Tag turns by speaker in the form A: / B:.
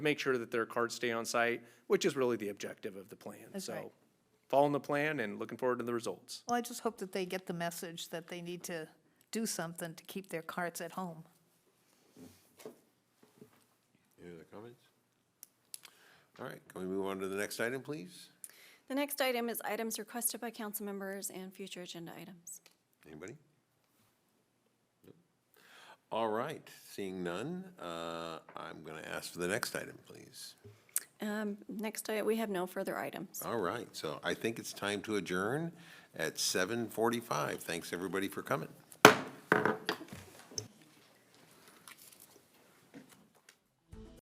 A: make sure that their carts stay on site, which is really the objective of the plan.
B: That's right.
A: So following the plan and looking forward to the results.
B: Well, I just hope that they get the message that they need to do something to keep their carts at home.
C: Any other comments? All right, can we move on to the next item, please?
D: The next item is items requested by council members and future agenda items.
C: Anybody? Nope. All right, seeing none, uh, I'm going to ask for the next item, please.
D: Um, Next, i- we have no further items.
C: All right, so I think it's time to adjourn at 7:45. Thanks, everybody, for coming.